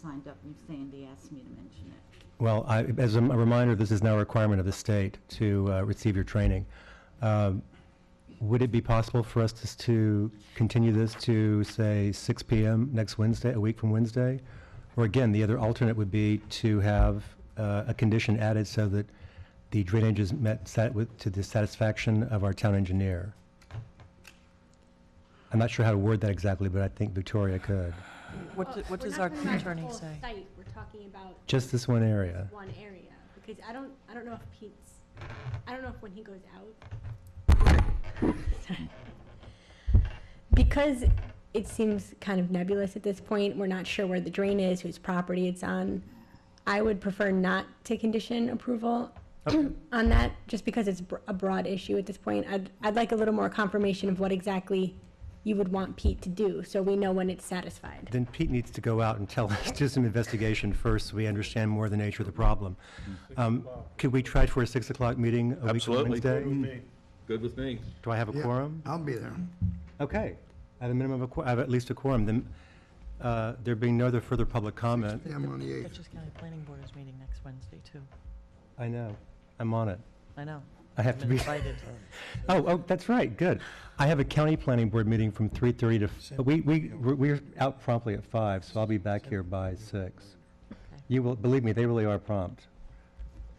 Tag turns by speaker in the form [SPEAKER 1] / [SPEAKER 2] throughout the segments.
[SPEAKER 1] signed up, and Sandy asked me to mention it.
[SPEAKER 2] Well, I, as a reminder, this is now a requirement of the state to uh, receive your training. Um, Would it be possible for us to, to continue this to, say, 6 PM next Wednesday, a week from Wednesday? Or again, the other alternate would be to have uh, a condition added so that the drainage is met sat with, to the satisfaction of our town engineer. I'm not sure how to word that exactly, but I think Victoria could.
[SPEAKER 3] What,
[SPEAKER 4] Well,
[SPEAKER 3] do- what
[SPEAKER 4] Oh, we're
[SPEAKER 3] does
[SPEAKER 4] not
[SPEAKER 3] our
[SPEAKER 4] talking about the
[SPEAKER 3] attorney
[SPEAKER 4] whole
[SPEAKER 3] say?
[SPEAKER 4] Site, we're talking about
[SPEAKER 2] Just this one area.
[SPEAKER 4] one area, because I don't, I don't know if Pete's, I don't know if when he goes out. Sorry. Because it seems kind of nebulous at this point, we're not sure where the drain is, whose property it's on. I would prefer not to condition approval on that, just because it's br- a broad issue at this point. I'd, I'd like a little more confirmation of what exactly you would want Pete to do, so we know when it's satisfied.
[SPEAKER 2] Then Pete needs to go out and tell us, do some investigation first, so we understand more of the nature of the problem. Um, Could we try for a 6 o'clock meeting a week from
[SPEAKER 5] Absolutely.
[SPEAKER 2] Wednesday?
[SPEAKER 5] Good with me.
[SPEAKER 2] Do I have a
[SPEAKER 6] Yeah,
[SPEAKER 2] quorum?
[SPEAKER 6] I'll be there.
[SPEAKER 2] Okay. I have a minimum of, a qu- I have at least a quorum. Then, uh, there being no other further public comment,
[SPEAKER 6] Yeah, I'm on the 8th.
[SPEAKER 3] Dutchess County Planning Board is meeting next Wednesday, too.
[SPEAKER 2] I know, I'm on it.
[SPEAKER 3] I know.
[SPEAKER 2] I have
[SPEAKER 3] I've
[SPEAKER 2] to
[SPEAKER 3] been
[SPEAKER 2] be,
[SPEAKER 3] invited.
[SPEAKER 2] oh, oh, that's right, good. I have a county planning board meeting from 3:30 to, f- we, we, we're- we're out promptly at 5, so I'll be back here by 6. You will, believe me, they really are prompt.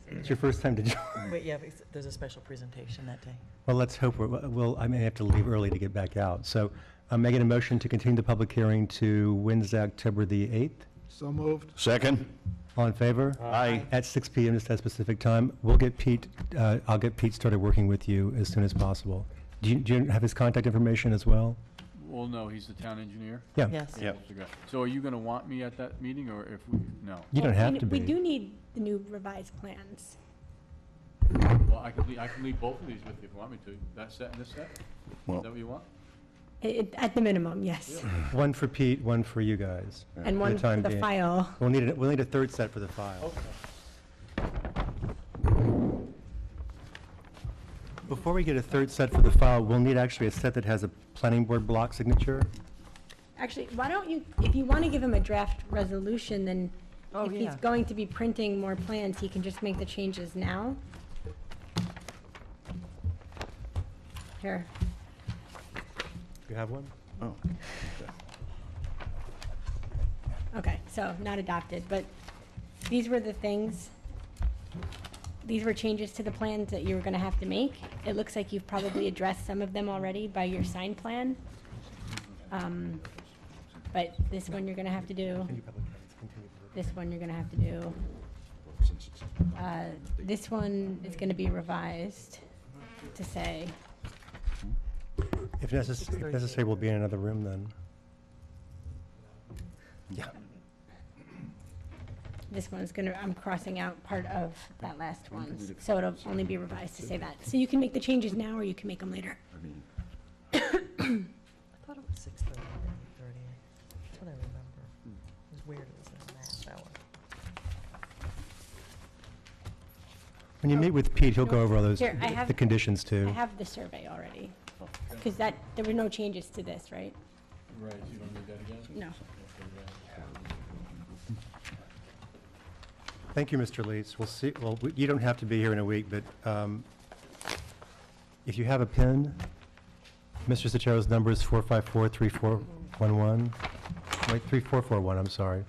[SPEAKER 2] It's your first time to join.
[SPEAKER 3] Wait, yeah, it's- there's a special presentation that day.
[SPEAKER 2] Well, let's hope, we're- well, I may have to leave early to get back out. So I'm making a motion to continue the public hearing to Wednesday, October the 8th.
[SPEAKER 6] So moved.
[SPEAKER 5] Second?
[SPEAKER 2] All in favor?
[SPEAKER 5] Aye.
[SPEAKER 2] At 6 PM, just that specific time. We'll get Pete, uh, I'll get Pete started working with you as soon as possible. Do you, do you have his contact information as well?
[SPEAKER 7] Well, no, he's the town engineer.
[SPEAKER 2] Yeah.
[SPEAKER 3] Yes.
[SPEAKER 5] Yep.
[SPEAKER 7] So are you gonna want me at that meeting, or if we, no?
[SPEAKER 2] You don't
[SPEAKER 4] Well, we
[SPEAKER 2] have
[SPEAKER 4] n-
[SPEAKER 2] to
[SPEAKER 4] We
[SPEAKER 2] be.
[SPEAKER 4] do need the new revised plans.
[SPEAKER 7] Well, I could, lea- I can leave both of these with you if you want me to. That set and this set?
[SPEAKER 5] Well-
[SPEAKER 7] Is that what you want?
[SPEAKER 4] I- it- At the minimum, yes.
[SPEAKER 2] One for Pete, one for you guys.
[SPEAKER 4] And one for
[SPEAKER 2] time
[SPEAKER 4] the
[SPEAKER 2] being.
[SPEAKER 4] file.
[SPEAKER 2] We'll need, a- we'll need a third set for the file. Before we get a third set for the file, we'll need actually a set that has a planning board block signature.
[SPEAKER 4] Actually, why don't you, if you want to give him a draft resolution, then
[SPEAKER 3] Oh,
[SPEAKER 4] if he's
[SPEAKER 3] yeah.
[SPEAKER 4] going to be printing more plans, he can just make the changes now. Here,
[SPEAKER 2] You have one?
[SPEAKER 5] Oh.
[SPEAKER 4] okay, so not adopted, but these were the things, these were changes to the plans that you were going to have to make. It looks like you've probably addressed some of them already by your sign plan. Um, But this one you're going to have to do. This one you're gonna have to do. Uh, This one is gonna be revised to say,
[SPEAKER 2] If necess- if necessary, we'll be in another room then. Yeah.
[SPEAKER 4] this one's gonna, I'm crossing out part of that last one. So it'll only be revised to say that. So you can make the changes now or you can make them later.
[SPEAKER 3] I thought it was 6:30 or 8:30. That's what I remember. It was weird, it was in that hour.
[SPEAKER 2] When you meet with Pete, he'll go over all those,
[SPEAKER 4] Here, I have-
[SPEAKER 2] the conditions
[SPEAKER 4] I
[SPEAKER 2] too.
[SPEAKER 4] have the survey already. Cause that, there were no changes to this, right?
[SPEAKER 7] Right, you don't need that again?
[SPEAKER 4] No.
[SPEAKER 2] Thank you, Mr. Leeds. We'll see, well, we- you don't have to be here in a week, but um, if you have a pen, Mr. Sotero's number is 454-3411. Wait, 3441, I'm sorry.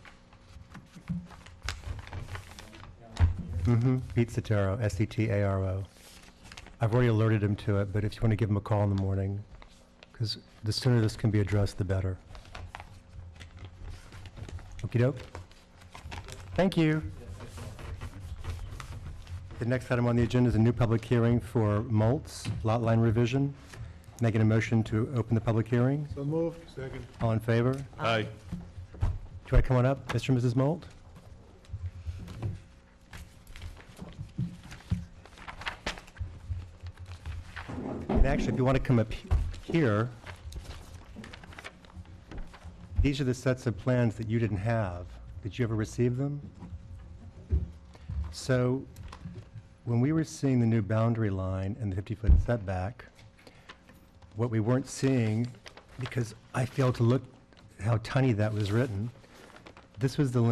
[SPEAKER 2] Mm-hmm, Pete Sotero, S-E-T-A-R-O. I've already alerted him to it, but if you want to give him a call in the morning, because the sooner this can be addressed, the better. Okey-doke? Thank you. The next item on the agenda is a new public hearing for Maltz Lot Line Revision. Making a motion to open the public hearing.
[SPEAKER 6] So moved. Second.
[SPEAKER 2] All in favor?
[SPEAKER 5] Aye.
[SPEAKER 2] Do I come on up, Mr. and Mrs. Molt? And actually, if you want to come up he- here, these are the sets of plans that you didn't have. Did you ever receive them? So, when we were seeing the new boundary line and the 50-foot setback, what we weren't seeing, because I failed to look how tiny that was written, this was the